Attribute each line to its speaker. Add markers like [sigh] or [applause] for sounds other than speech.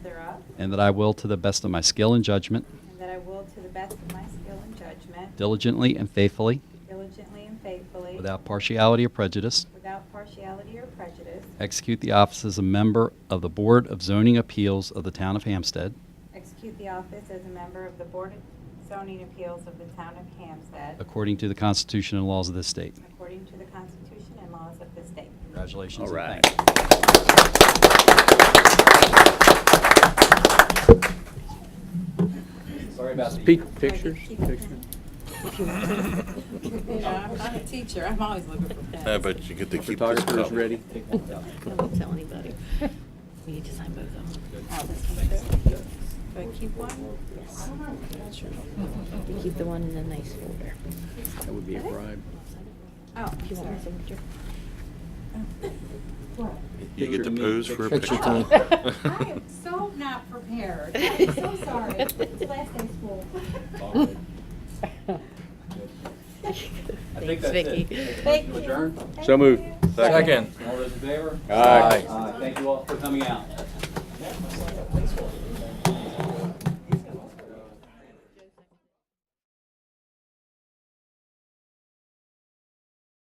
Speaker 1: and that I will, to the best of my skill and judgment,
Speaker 2: and that I will, to the best of my skill and judgment,
Speaker 1: diligently and faithfully,
Speaker 2: diligently and faithfully,
Speaker 1: without partiality or prejudice,
Speaker 2: without partiality or prejudice,
Speaker 1: execute the office as a member of the Board of Zoning Appeals of the Town of Hampstead,
Speaker 2: execute the office as a member of the Board of Zoning Appeals of the Town of Hampstead,
Speaker 1: according to the Constitution and laws of this state.
Speaker 2: according to the Constitution and laws of the state.
Speaker 1: Congratulations.
Speaker 3: All
Speaker 1: and
Speaker 3: right.
Speaker 1: thank you. Sorry about the...
Speaker 3: Pe- Pictures? Pictures?
Speaker 2: [laughs] You know, I'm not a teacher, I'm always looking for pets.
Speaker 4: I bet you get to keep this
Speaker 3: Photographer's
Speaker 4: cup.
Speaker 3: ready.
Speaker 5: Don't tell anybody. We need to sign both of them.
Speaker 2: Oh, this one too? Do I keep one?
Speaker 5: Yes. Sure. You keep the one in the nice folder.
Speaker 3: That would be a bribe.
Speaker 2: Oh,
Speaker 5: If you want
Speaker 2: sorry.
Speaker 5: my signature.
Speaker 4: You get to
Speaker 3: Picture me,
Speaker 4: pose for a
Speaker 3: picture-
Speaker 4: picture.
Speaker 3: picture
Speaker 2: I am so not prepared. I'm so sorry. It's last day of school.
Speaker 5: Thanks, Vicky.
Speaker 2: Thank you.
Speaker 1: Adjourn.
Speaker 3: So moved.
Speaker 1: All those in favor?
Speaker 3: Aye.
Speaker 1: Aye. Thank you all for coming out.